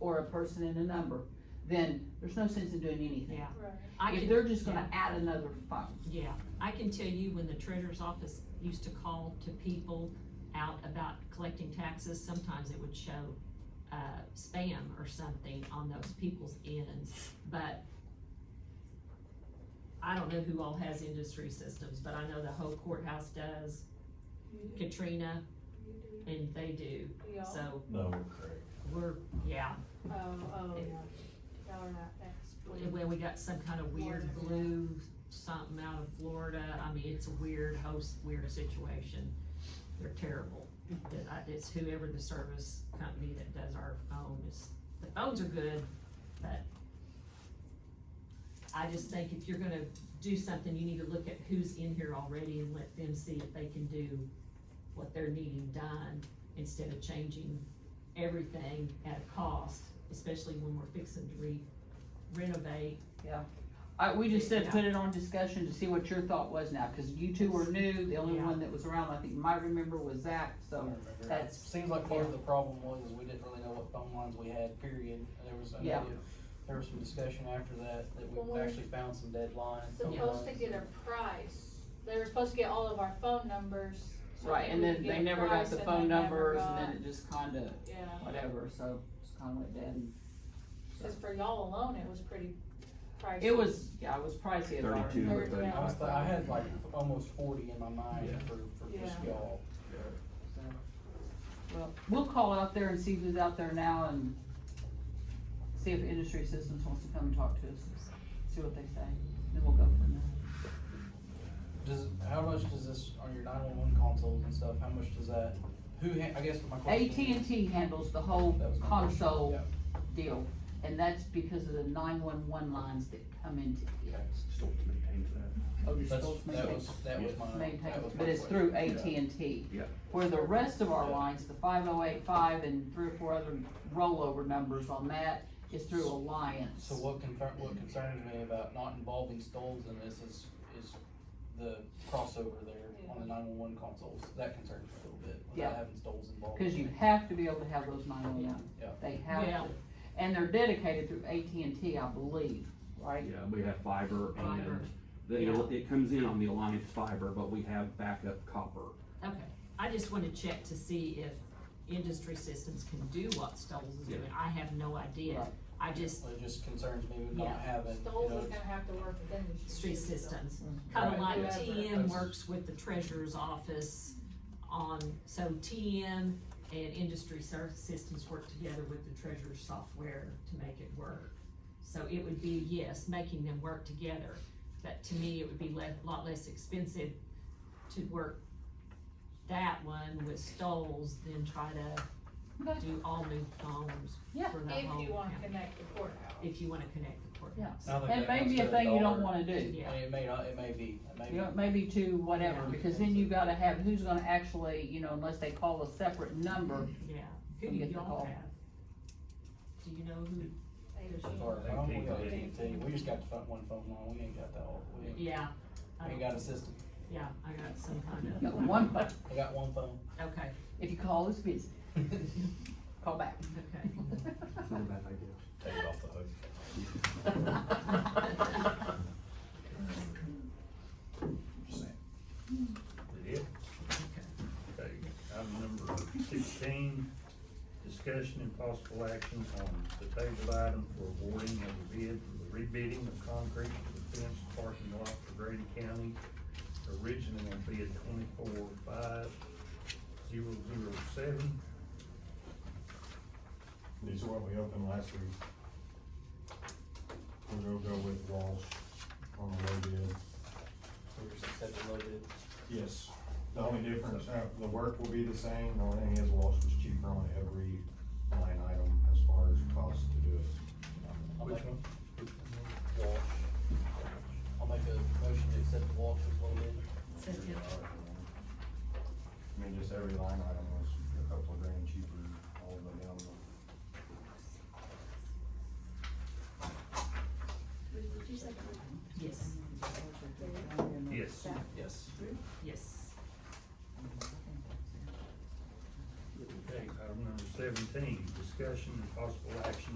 or a person and a number, then there's no sense in doing anything. Yeah, Right. I If can, they're just gonna add another phone. yeah, I can tell you when the treasurer's office used to call to people out about collecting taxes, sometimes it would show, uh, spam or something on those people's ends, but I don't know who all has industry systems, but I know the whole courthouse does, You do, Katrina, you do. and they do, Y'all? so No, Craig. we're, yeah, Oh, oh, yeah. Y'all are not And that. when we got some kind of weird blue something out of Florida, I mean, it's a weird host, weird situation. They're terrible. But I- It's whoever the service company that does our phone is, the phones are good, but I just think if you're gonna do something, you need to look at who's in here already and let them see if they can do what they're needing done instead of changing everything at a cost, especially when we're fixing to re- renovate I, we just said, put it on discussion to see what your thought was now, cause you two were new, the only Yeah. one that was around, I think you might remember was Zach, so. That's- Seems like part of the problem was is we didn't really know what phone lines we had, period. There was, I Yeah. know, there was some discussion after that, that Well, we actually found some dead lines. phone Supposed to lines. get a price. They were supposed to get all of our phone numbers. so Right, and we then could they get a never got price the and phone they never numbers and got- then it just kinda, Yeah, whatever, so just kinda went dead. and- cause for y'all alone, it was pretty pricey. It was, yeah, it was pricey as ours. Thirty-two or Thirty, yeah. I was, thirty-five. th- I had like almost forty in my mind for, for just Yeah. y'all. So, Well, we'll call out there and see who's out there now and see if Industry Systems wants to come and talk to us, see what they say, then we'll go from there. Does, how much does this, on your nine-one-one consoles and stuff, how much does that, who, ha- I guess my question is. AT&T handles the whole That was my question, console yeah. deal, and that's because of the nine-one-one lines that come into it. Still maintains that. Oh, you're That's, supposed to that maintain- was, that was my, maintain that was it, my but it's question. through Yeah. AT&T. Yeah. Where the rest of our Yeah. lines, the five oh eight five and three or four other rollover numbers on that, is through Alliance. So what concern, what concerns me about not involving Stoles in this is, is the crossover there on the nine-one-one consoles, that concerns me a little bit, Yeah. without having Stoles involved. Cause you have to be able to have those nine one one. Yeah. They have Yeah. to. And they're dedicated through AT&T, I believe, right? Yeah, we have fiber Fiber. and the, Yeah. it comes in on the Alliance fiber, but we have backup copper. Okay, I just wanna check to see if industry systems can do what Stoles is doing, I have no idea. Right. I just, It just concerns me with Yeah. not having, you Stoles know, is gonna have to work with industry. street systems, kinda Right. like Whoever. TM That's- works with the treasurer's office on, so TM and industry ser- systems work together with the treasurer's software to make it work. So it would be, yes, making them work together, but to me, it would be le- lot less expensive to work that one with Stoles than try to Okay. do all new phones Yeah. for the whole. If you wanna county, connect the courthouse. If you wanna connect the courthouse. now that It that may comes be a to thing you don't dollar, wanna do. Yeah, and it may not, it may be, it may You be. know, maybe two, whatever, Yeah. because then you gotta have, who's gonna actually, you know, unless they call a separate number. yeah. Who Come do get the y'all call. have? Do you know who? They- As far as phone, we got AT&T, we just got the front one phone line, we ain't got that, all- we ain't, Yeah. I we ain't don't- got a system, Yeah, I got some kind You of. got one, phone. we got one phone. Okay, if you call, it's busy, call back. okay. It's not a bad idea. Take it off the hook. Is it? Okay, item number sixteen, discussion and possible action on the table item for awarding of the bid for the rebidding of concrete for the fenced parking lot for Grady County. Originally on bid twenty-four five zero zero seven. These are what we opened last week. We're gonna go with Walsh on the low bid. We just accepted a little bit. Yes. The only difference, uh, the work will be the same, the only thing is Walsh was cheaper on every line item as far as cost to do it. I'll Which make- one? Walsh. I'll make a motion to accept the Walsh as low bid. Second. I mean, just every line item was a couple of grand cheaper, all the way down. the- Yes, Yes. Yes. yes. Okay, item number seventeen, discussion and possible action